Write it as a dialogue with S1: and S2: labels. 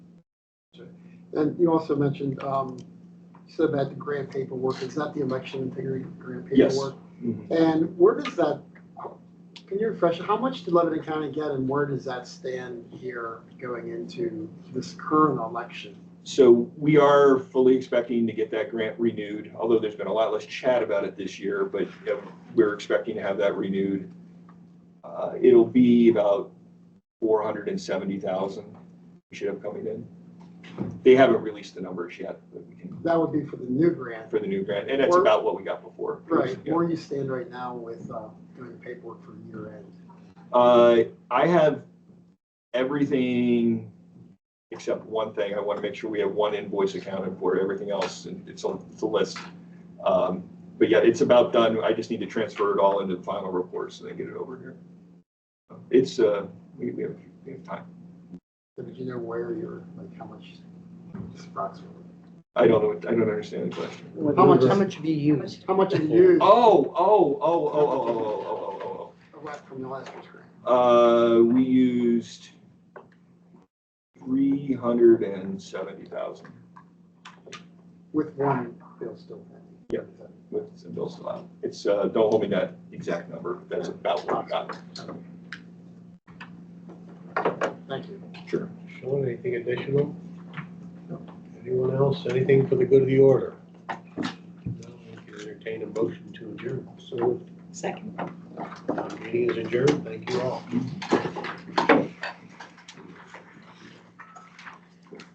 S1: yesterday. And you also mentioned, um, you said about the grant paperwork, is that the election integrity grant
S2: Yes.
S1: paperwork? And where does that, can you refresh, how much did Lebanon County get and where does that stand here going into this current election?
S2: So we are fully expecting to get that grant renewed, although there's been a lot less chat about it this year, but uh, we're expecting to have that renewed. Uh, It'll be about four hundred and seventy thousand we should have coming in. They haven't released the numbers yet, but we can,
S1: That would be for the new grant,
S2: for the new grant, and that's
S1: Or-
S2: about what we got before.
S1: right?
S2: Yeah.
S1: Where you stand right now with, uh, doing paperwork for year end?
S2: Uh, I have everything except one thing. I want to make sure we have one invoice accounted for everything else, and it's on the list. Um, But yeah, it's about done. I just need to transfer it all into the final report so they get it over here. It's, uh, we, we have, we have time.
S1: So Did you know where you're, like, how much just approximately?
S2: I don't know, I don't understand the question.
S1: How much,
S3: How
S1: how much,
S3: much have you used?
S1: how much have you used
S2: Oh, oh, oh, oh, oh, oh, oh, oh, oh, oh.
S1: left from the last year's grant?
S2: Uh, we used three hundred and seventy thousand
S1: With one bill still pending.
S2: Yep. with some bills still out. It's, uh, don't hold me to that exact number, but that's about what I got.
S1: Thank you.
S2: Sure.
S4: Sean, anything additional? Anyone else, anything for the good of the order? No, we can entertain a motion to adjourn, so
S3: Second.
S4: the meeting is adjourned, thank you all.